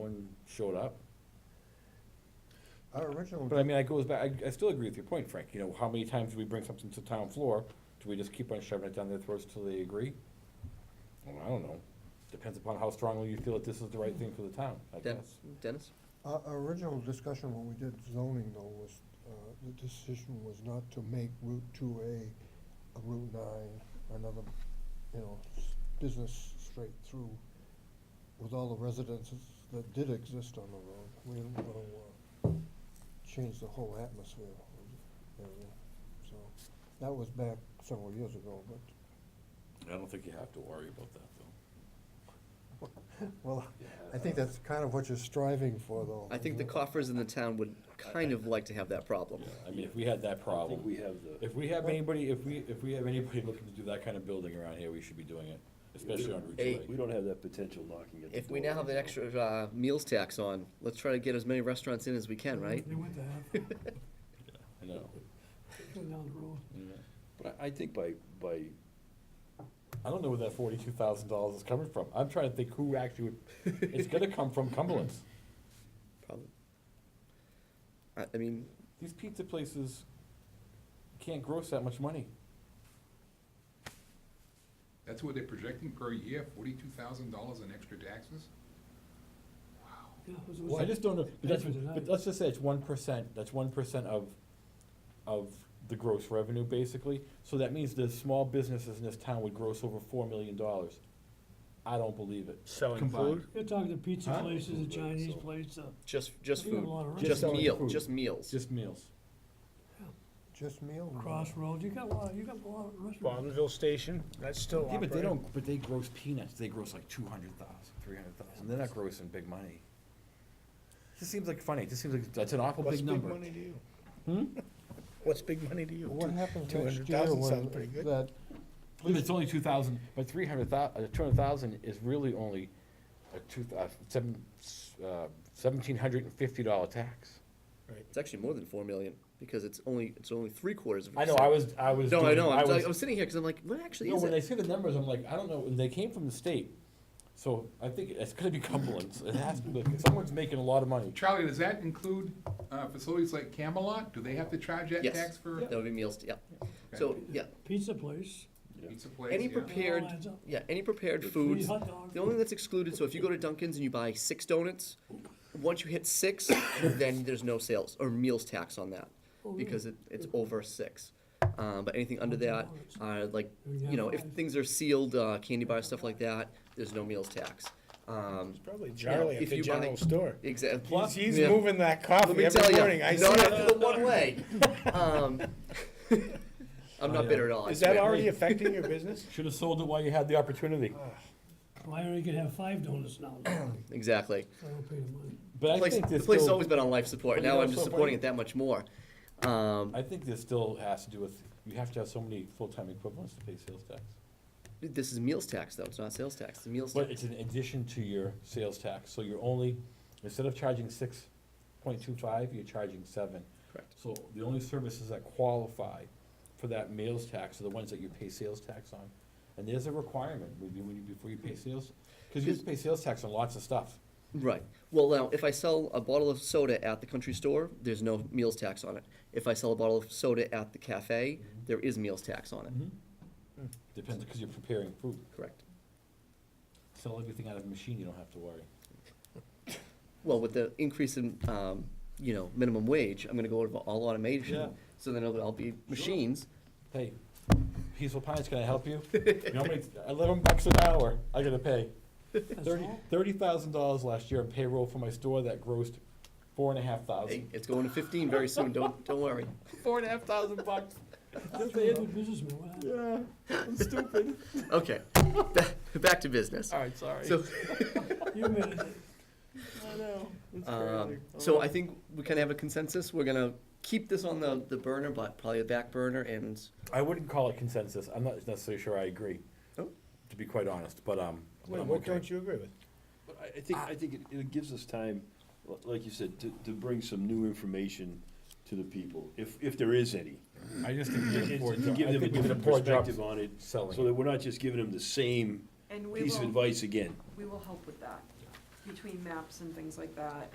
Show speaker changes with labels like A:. A: showed up.
B: Our original,
A: But I mean, I goes back, I, I still agree with your point, Frank, you know, how many times do we bring something to town floor? Do we just keep on shoving it down their throats till they agree? Well, I don't know, depends upon how strongly you feel that this is the right thing for the town, I
C: Den-
A: guess.
C: Dennis?
B: our our original discussion when we did zoning though was, uh, the decision was not to make Route two A, a Route nine, another, you know, s- business straight through with all the residences that did exist on the road. We didn't wanna, uh, change the whole atmosphere of the area. So, that was back several years ago, but,
A: I don't think you have to worry about that, though.
B: well, I think that's kind of what you're striving for
A: Oh,
B: though.
C: I think
B: isn't
C: the
B: it?
C: coffers in the town would kind of like to have that problem.
A: I mean, if we had that
D: I think
A: problem,
D: we have the.
A: if we have anybody, if we, if we have anybody looking to do that kind of building around here, we should be doing it, especially on Route
C: Hey.
A: two
D: We don't have that potential knocking at the door.
C: If we now have an
D: you know.
C: extra uh, meals tax on, let's try to get as many restaurants in as we can, right?
E: They went to half,
A: I know.
E: going down the road.
D: But I, I think by, by,
A: I don't know where that forty-two thousand dollars is coming from. I'm trying to think who actually would, it's gonna come from Cumberland's.
C: Probably. I, I mean,
A: These pizza places can't gross that much money.
F: That's what they're projecting per year, forty-two thousand dollars in extra taxes?
E: Yeah, it was- it was-
A: I just don't know, but that's,
E: Neither did I.
A: but let's just say it's one percent, that's one percent of, of the gross revenue, basically. So that means the small businesses in this town would gross over four million dollars. I don't believe it.
G: Selling
A: Combined.
G: food?
E: You're talking to pizza
A: Huh? Mm-hmm.
E: places, a Chinese
D: So-
E: place, uh,
C: just, just
E: We have a
C: food,
E: lot of
C: just
A: restaurants.
C: meal,
A: Food.
C: just
A: It's
C: meals.
A: just meals.
B: Just meal.
E: Crossroads, you got a lot, you got a lot of restaurants.
G: Bonneville Station, that's still
A: Yeah,
G: operating.
A: but they don't, but they gross peanuts, they gross like two hundred thousand, three hundred thousand, they're not grossing big money. This seems like funny, this seems like, that's an awful
G: What's
A: big
G: big
A: number.
G: money to you? What's big money to you?
B: What happens next
G: 200,000
B: year when
G: sounds pretty good.
B: that,
A: But it's only two thousand, but three hundred thou, uh, two hundred thousand is really only a two, uh, seven, uh, seventeen hundred and fifty dollar tax.
C: It's actually more than four million, because it's only, it's only three quarters of a
A: I know,
C: percent.
A: I was, I was.
C: No, I
A: doing-
C: know, I'm,
A: was-
C: I was sitting here, cause I'm like, what actually
A: No,
C: is
A: when I
C: it?
A: see the numbers, I'm like, I don't know, and they came from the state, so I think it's gonna be Cumberland's, it has to, be. someone's making a lot of money.
F: Charlie, does that include, uh, facilities like Camelot? Do they have to charge that
C: Yes.
F: tax for
C: That would be meals, yeah. So, yeah,
E: Pizza place,
F: pizza place?
C: any
F: Yeah.
C: prepared,
E: lines up.
C: yeah, any prepared
E: free
C: foods,
E: hot dog.
C: The only thing that's excluded, so if you go to Dunkin's and you buy six donuts, once you hit six, then there's no sales or meals tax on that
E: Oh,
C: because it, it's over six. Um, but anything under that, uh, like, you know, if things are sealed, uh, candy bars, stuff like that, there's no meals tax. Um,
G: Probably Charlie
C: if
G: at the
C: you buy-
G: general store.
C: exactly.
G: He's, he's moving that coffee
C: Let me
G: every
C: tell
G: morning.
C: you,
G: I see
C: not
G: it.
C: after the one way. Um, I'm
A: Oh,
C: not bitter at all. I
G: Is that
C: swear.
G: already affecting your business?
A: Should've sold it while you had the opportunity.
E: Larry could have five donuts now, I
C: Exactly.
E: don't pay the money.
A: But I
C: Place,
A: think
C: the
A: this
C: place's
A: still,
C: always been on life support.
A: But you
C: Now
A: know
C: I'm
A: what's
C: just
A: so
C: supporting
A: funny?
C: it that much more. Um,
A: I think this still has to do with, you have to have so many full-time equivalents to pay sales tax.
C: This is meals tax, though. It's not sales tax. It's meals
A: But it's
C: tax.
A: an addition to your sales tax, so you're only, instead of charging six point two five, you're charging seven.
C: Correct.
A: So the only services that qualify for that meals tax are the ones that you pay sales tax on. And there's a requirement, when you, when you, before you pay sales, cause you have to pay sales tax on lots of stuff.
C: Right. Well, now, if I sell a bottle of soda at the country store, there's no meals tax on it. If I sell a bottle of soda at the cafe, there is meals tax on it.
A: Depends, cause you're preparing food.
C: Correct.
A: Sell everything out of a machine, you don't have to worry.
C: Well, with the increase in, um, you know, minimum wage, I'm going to go over all automation.
A: Yeah.
C: So then it'll all be machines.
A: Hey, Peaceful Pines, can I help you? You know, how many- eleven bucks an hour, I gotta pay.
E: That's
A: Thirty,
E: all.
A: thirty thousand dollars last year in payroll for my store that grossed four and a half
C: Hey,
A: thousand.
C: it's going to 15 very soon. Don't don't worry.
A: Four and a half thousand bucks.
E: That's a good businessman, what happened?
A: Yeah, I'm stupid.
C: Okay. Back, back to business.
A: Alright, sorry.
C: So.
E: You made it.
A: I know, it's
C: Um,
A: crazy.
C: so I think we kind of have a consensus. We're gonna keep this on the, the burner, but probably a back burner and
A: I wouldn't call it consensus, I'm not necessarily sure I agree,
C: Oh.
A: to be quite honest, but, um, but
G: Wait,
A: I'm
G: what
A: okay.
G: don't you agree with?
D: But I, I think, I think it, it gives us time, li- like you said, to, to bring some new information to the people, if, if there is any.
A: I just think we did a poor
D: To
A: job,
D: give
A: I
D: them a
A: think we did a
D: different
A: poor job
D: perspective on it, so
A: selling.
D: that we're not just giving them the same
H: And we
D: piece of
H: will,
D: advice again.
H: we will help with that. between maps and things like that,